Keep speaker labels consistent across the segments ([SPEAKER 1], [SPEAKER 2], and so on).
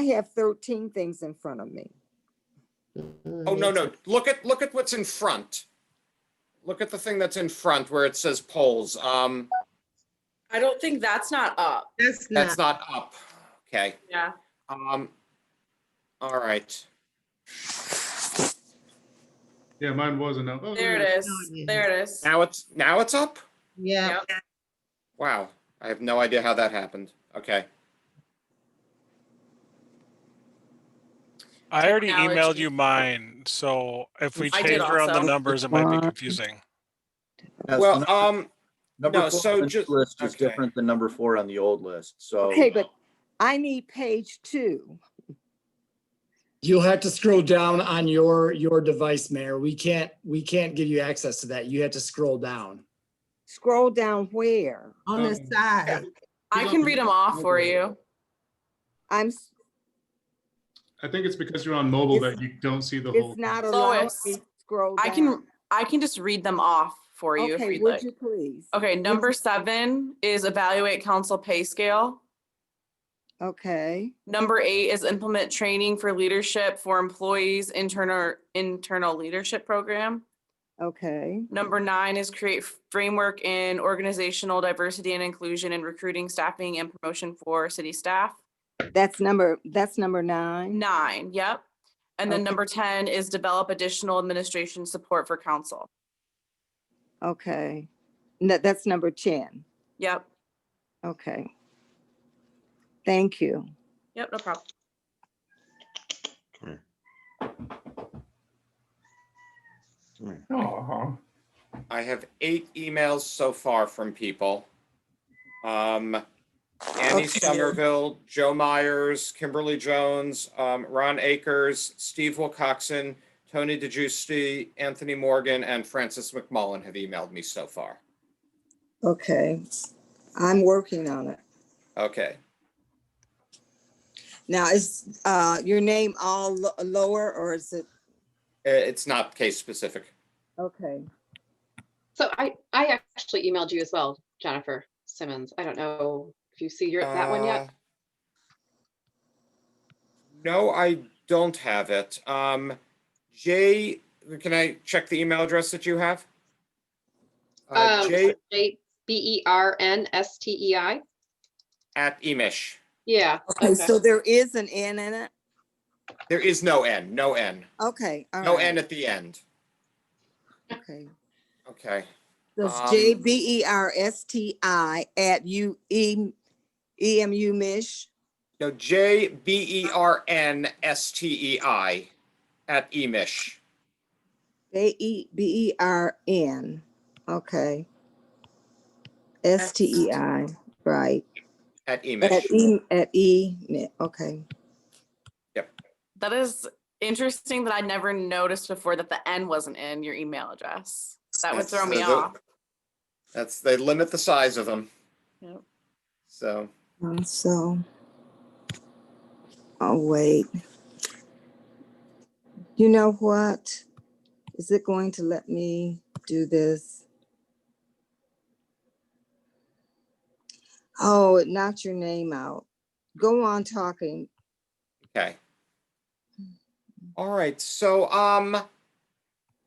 [SPEAKER 1] I have 13 things in front of me.
[SPEAKER 2] Oh, no, no. Look at, look at what's in front. Look at the thing that's in front where it says polls. Um,
[SPEAKER 3] I don't think that's not up.
[SPEAKER 4] That's
[SPEAKER 2] that's
[SPEAKER 4] not,
[SPEAKER 2] not up. Okay.
[SPEAKER 3] Yeah.
[SPEAKER 2] Um, all right.
[SPEAKER 5] Yeah, mine wasn't up. Oh,
[SPEAKER 3] There
[SPEAKER 5] look at
[SPEAKER 3] it
[SPEAKER 4] No,
[SPEAKER 3] is.
[SPEAKER 4] it
[SPEAKER 3] There it is.
[SPEAKER 2] Now it's, now it's up?
[SPEAKER 4] yeah,
[SPEAKER 3] Yep.
[SPEAKER 2] Wow. I have no idea how that happened. Okay.
[SPEAKER 6] I already emailed
[SPEAKER 3] Technology.
[SPEAKER 6] you mine, so if we
[SPEAKER 3] I
[SPEAKER 6] change
[SPEAKER 3] did
[SPEAKER 6] around the
[SPEAKER 3] also.
[SPEAKER 6] numbers, it might be
[SPEAKER 1] Uh,
[SPEAKER 6] confusing.
[SPEAKER 7] Yes,
[SPEAKER 2] Well,
[SPEAKER 7] number-
[SPEAKER 2] um,
[SPEAKER 7] number
[SPEAKER 2] no,
[SPEAKER 7] four on
[SPEAKER 2] so
[SPEAKER 7] the new
[SPEAKER 2] just-
[SPEAKER 7] List is
[SPEAKER 2] okay.
[SPEAKER 7] different than number four on the old list, so.
[SPEAKER 1] Okay, but I need page two.
[SPEAKER 8] You'll have to scroll down on your, your device, Mayor. We can't, we can't give you access to that. You have to scroll down.
[SPEAKER 1] Scroll down where?
[SPEAKER 4] on the
[SPEAKER 5] Um,
[SPEAKER 4] side.
[SPEAKER 3] I can read them off for you.
[SPEAKER 1] I'm, s-
[SPEAKER 5] I think it's because you're on mobile
[SPEAKER 1] It's-
[SPEAKER 5] that you don't see the whole.
[SPEAKER 1] it's not
[SPEAKER 3] thing.
[SPEAKER 1] allowing
[SPEAKER 3] Lois,
[SPEAKER 1] me to scroll
[SPEAKER 3] I
[SPEAKER 1] down.
[SPEAKER 3] can, I can just read them off for you if
[SPEAKER 1] Okay,
[SPEAKER 3] you'd
[SPEAKER 1] would
[SPEAKER 3] like. Oh.
[SPEAKER 1] you please?
[SPEAKER 3] Okay, number seven is evaluate council pay scale.
[SPEAKER 1] Okay,
[SPEAKER 3] Number eight is implement training for leadership for employees internal, internal leadership program.
[SPEAKER 1] okay,
[SPEAKER 3] Number nine is create framework in organizational diversity and inclusion and recruiting, staffing and promotion for city staff.
[SPEAKER 1] that's number, that's number nine.
[SPEAKER 3] Nine, yep. And then
[SPEAKER 1] Okay.
[SPEAKER 3] number ten is develop additional administration support for council.
[SPEAKER 1] Okay, no, that's number 10.
[SPEAKER 3] Yep,
[SPEAKER 1] Okay. Thank you.
[SPEAKER 3] yep, no problem.
[SPEAKER 5] Uh-huh.
[SPEAKER 2] I have eight emails so far from people. Um, Annie
[SPEAKER 1] Okay.
[SPEAKER 2] Somerville, Joe Myers, Kimberly Jones, um, Ron Akers, Steve Wilcoxon, Tony DeGiusti, Anthony Morgan, and Francis McMullen have emailed me so far.
[SPEAKER 1] Okay, I'm working on it.
[SPEAKER 2] Okay.
[SPEAKER 1] Now, is uh, your name all lo- lower or is it?
[SPEAKER 2] I- It's not case specific.
[SPEAKER 1] Okay,
[SPEAKER 9] So I, I actually emailed you as well, Jennifer Simmons. I don't know if you see your, that one
[SPEAKER 2] Uh,
[SPEAKER 9] yet.
[SPEAKER 2] No, I don't have it. Um, Jay, can I check the email address that you have? Uh,
[SPEAKER 9] Um,
[SPEAKER 2] Jay
[SPEAKER 9] J B E R N S T E I.
[SPEAKER 2] at Emish.
[SPEAKER 9] Yeah.
[SPEAKER 1] okay, so there is an N in it?
[SPEAKER 2] There is no N, no N,
[SPEAKER 1] Okay. all
[SPEAKER 2] no
[SPEAKER 1] right,
[SPEAKER 2] N at the end.
[SPEAKER 1] Okay.
[SPEAKER 2] Okay. Um,
[SPEAKER 1] That's J B E R S T I at U E, E M U Mish.
[SPEAKER 2] No, J B E R N S T E I at Emish.
[SPEAKER 1] J E B E R N, okay. S T E I, right,
[SPEAKER 2] At Emish.
[SPEAKER 1] at E, at E, mi- okay.
[SPEAKER 3] That is interesting that I never noticed before that the N wasn't in your email address. That would throw
[SPEAKER 2] That's-
[SPEAKER 3] me
[SPEAKER 2] so the-
[SPEAKER 3] off.
[SPEAKER 2] That's, they limit the size of them.
[SPEAKER 3] Yep.
[SPEAKER 2] So,
[SPEAKER 1] Uh, So, oh, wait. You know what? Is it going to let me do this? Oh, it knocked your name out. Go on talking.
[SPEAKER 2] okay. All right, so, um,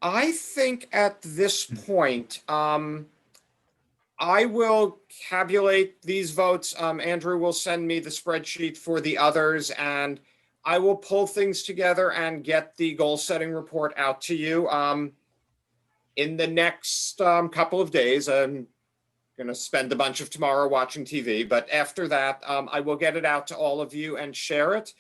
[SPEAKER 2] I think at this point, um, I will tabulate these votes. Um, Andrew will send me the spreadsheet for the others and I will pull things together and get the goal setting report out to you. Um, in the next, um, couple of days, I'm gonna spend a bunch of tomorrow watching TV, but after that, um, I will get it out to all of you and share it.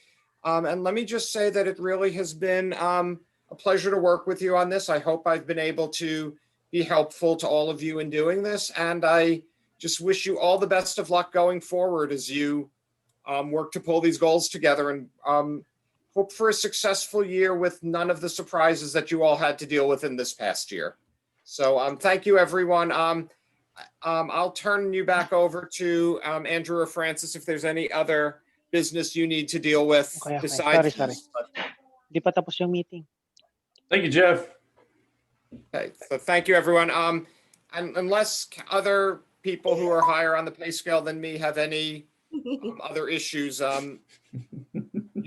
[SPEAKER 2] Um, and let me just say that it really has been, um, a pleasure to work with you on this. I hope I've been able to be helpful to all of you in doing this. And I just wish you all the best of luck going forward as you um, work to pull these goals together and um, hope for a successful year with none of the surprises that you all had to deal with in this past year. So um, thank you, everyone. Um, I- um, I'll turn you back over to um, Andrew or Francis if there's any other business you need to deal with
[SPEAKER 10] Okay, okay.
[SPEAKER 2] besides.
[SPEAKER 10] Sorry, sorry.
[SPEAKER 2] this, but-
[SPEAKER 10] Di pa tapos yung meeting.
[SPEAKER 5] Thank you, Jeff.
[SPEAKER 2] Okay, so thank you, everyone. Um, and unless c- other people who are higher on the pay scale than me have any um, other issues, um,